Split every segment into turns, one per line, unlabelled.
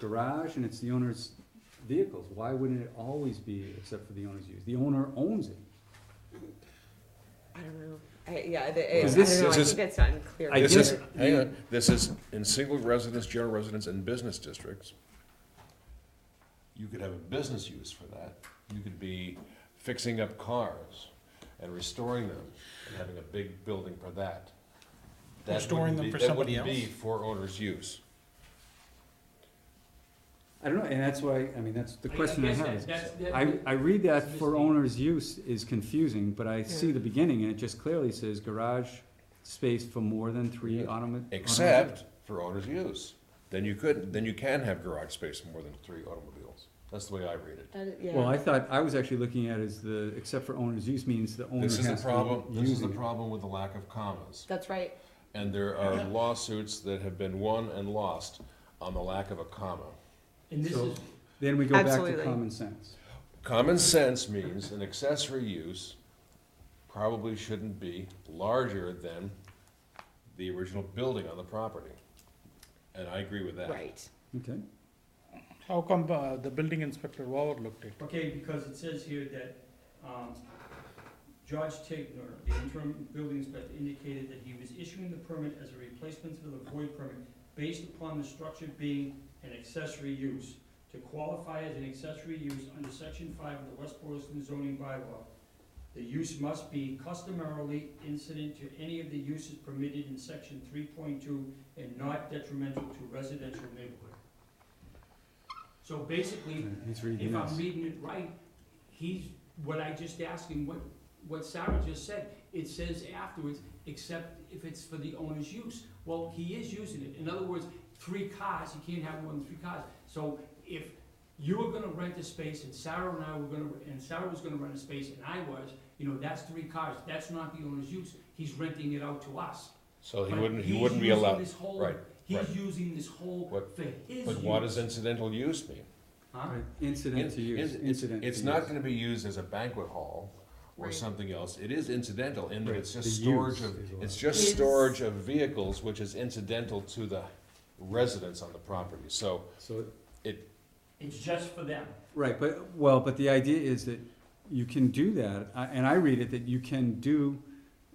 garage and it's the owner's vehicles, why wouldn't it always be except for the owner's use? The owner owns it.
I don't know. I, yeah, the, I, I
Is
don't
this-
know. I
is
think it's
this-
unclear.
I
This
get
is,
it.
hang on, this is in single residence, general residence, and business districts. You could have a business use for that. You could be fixing up cars and restoring them and having a big building for that. That wouldn't
Restoring them
be-
for
that
somebody
wouldn't Be
else?
for owner's use.
I don't know, and that's why, I mean, that's the
I- I
question I
guess
have.
that-
is-
that's- that-
I, I read that
It's
for
misleading.
owner's use is confusing, but I see
Yeah.
the beginning and it just clearly says garage space for more than three
Yeah.
automobiles.
Except for owner's use. Then you could, then you can have garage space for more than three automobiles. That's the way I read it.
That is- yeah.
Well, I thought, I was actually looking at is the, except for owner's use means the owner has
This
to
is
use
the problem, this is the
it.
problem with the lack of commas.
That's right.
And there are lawsuits that have been won and lost on the lack of a comma.
And this
So-
is,
Then we go back to
Absolutely.
common sense.
Common sense means an accessory use probably shouldn't be larger than the original building on the property. And I agree with that.
Right.
Okay,
How come uh, the building inspector overlooked it?
okay, because it says here that, um, George Tigner, the interim building inspector, indicated that he was issuing the permit as a replacement for the void permit based upon the structure being an accessory use. To qualify as an accessory use under section five of the West Boylston zoning bylaw, the use must be customarily incident to any of the uses permitted in section three point two and not detrimental to residential neighborhood. So basically,
he's reading
if I'm
this.
reading it right, he's, what I just asked him, what, what Sarah just said, it says afterwards, except if it's for the owner's use. Well, he is using it. In other words, three cars, he can't have more than three cars. So if you were gonna rent a space and Sarah and I were gonna, and Sarah was gonna rent a space and I was, you know, that's three cars. That's not the owner's use. He's renting it out to us.
So he
But
wouldn't, he
he's
wouldn't be
using
allowed,
this whole-
right, right.
He's using this whole
What-
for his use.
but what does incidental use mean?
Huh?
Right, Incident to use,
It's-
incident to
It's not
use.
gonna be used as a banquet hall or
Right.
something else. It is incidental in that
Right,
it's
the
just storage
use
of,
is allowed.
it's just
Is-
storage of vehicles, which is incidental to the residents on the property. So
So
It's just for them.
Right, but, well, but the idea is that you can do that, I- and I read it that you can do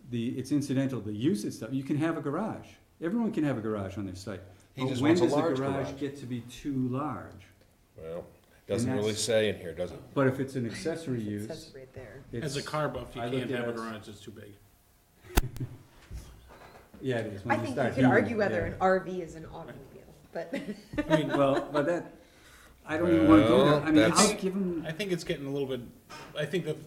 the, it's incidental, the use and stuff, you can have a garage. Everyone can have a garage on their site.
he just wants a large
But when does the
garage.
garage get to be too large?
Well, doesn't really
that's-
say in here, does it?
But if it's an accessory
It says
use,
right there.
it's.
As a car buff, you
I looked
can't
at
have a
it.
garage, it's too big.
Yeah, it is. When
I think you
start
could
heating,
argue whether
yeah.
an RV is an automobile, but
I mean,
Well, but that, I don't even wanna go there,
Well,
I mean, I'll
that's-
give them,
I think it's getting a little bit, I think that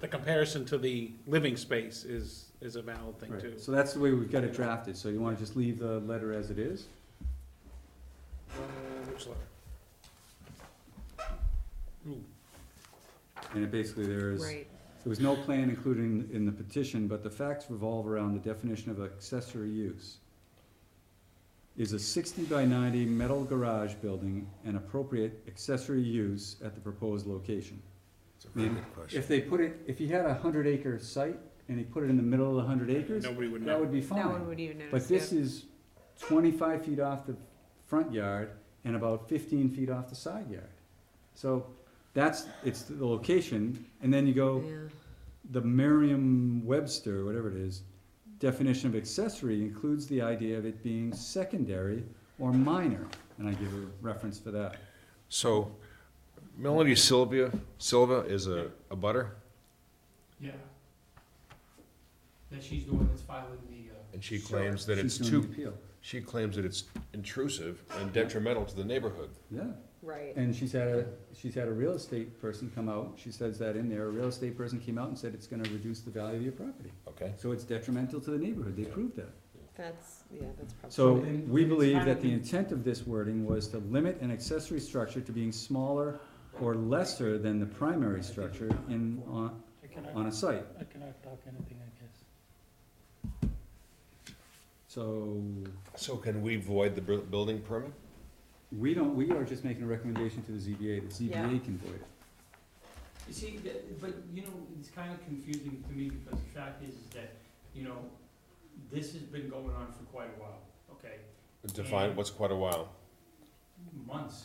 the comparison to the living space is, is a valid thing too.
right, so that's the way we've got it drafted, so you wanna just leave the letter as it is?
Which letter? Ooh,
And it basically there is.
right.
There was no plan included in- in the petition, but the facts revolve around the definition of accessory use. Is a sixty by ninety metal garage building an appropriate accessory use at the proposed location?
It's a
very good If they put it, if he had a hundred acre site and he put it in the middle of the hundred acres,
Nobody would
that
know.
would be
No one
fine.
would even notice.
But this is twenty-five feet off the front yard and about fifteen feet off the side yard. So that's, it's the location, and then you
yeah.
go,
Yeah.
the Merriam-Webster, whatever it is, definition of accessory includes the idea of it being secondary or minor, and I give a reference for that.
So Melanie Sylvia, Silva is a, a butter,
Yeah. That she's the one that's filing the, uh.
and she
Sure.
claims that it's
She's doing the
too,
appeal.
she claims that it's intrusive and detrimental to the neighborhood.
Yeah,
Right.
and she's had a, she's had a real estate person come out, she says that in there, a real estate person came out and said it's gonna reduce the value of your property.
Okay.
So it's detrimental to the neighborhood, they proved that.
That's yeah. That's probably.
So
then-
we
then it's
believe
not
that the
even-
intent of this wording was to limit an accessory structure to being smaller or lesser than the primary structure in, on, on a site.
I cannot talk anything, I guess.
So,
So can we void the bu- building permit?
we don't, we are just making a recommendation to the ZBA, the
Yeah.
ZBA can void it.
You see, that- but, you know, it's kind of confusing to me because the fact is, is that, you know, this has been going on for quite a while, okay?
Define what's quite a while.
Months,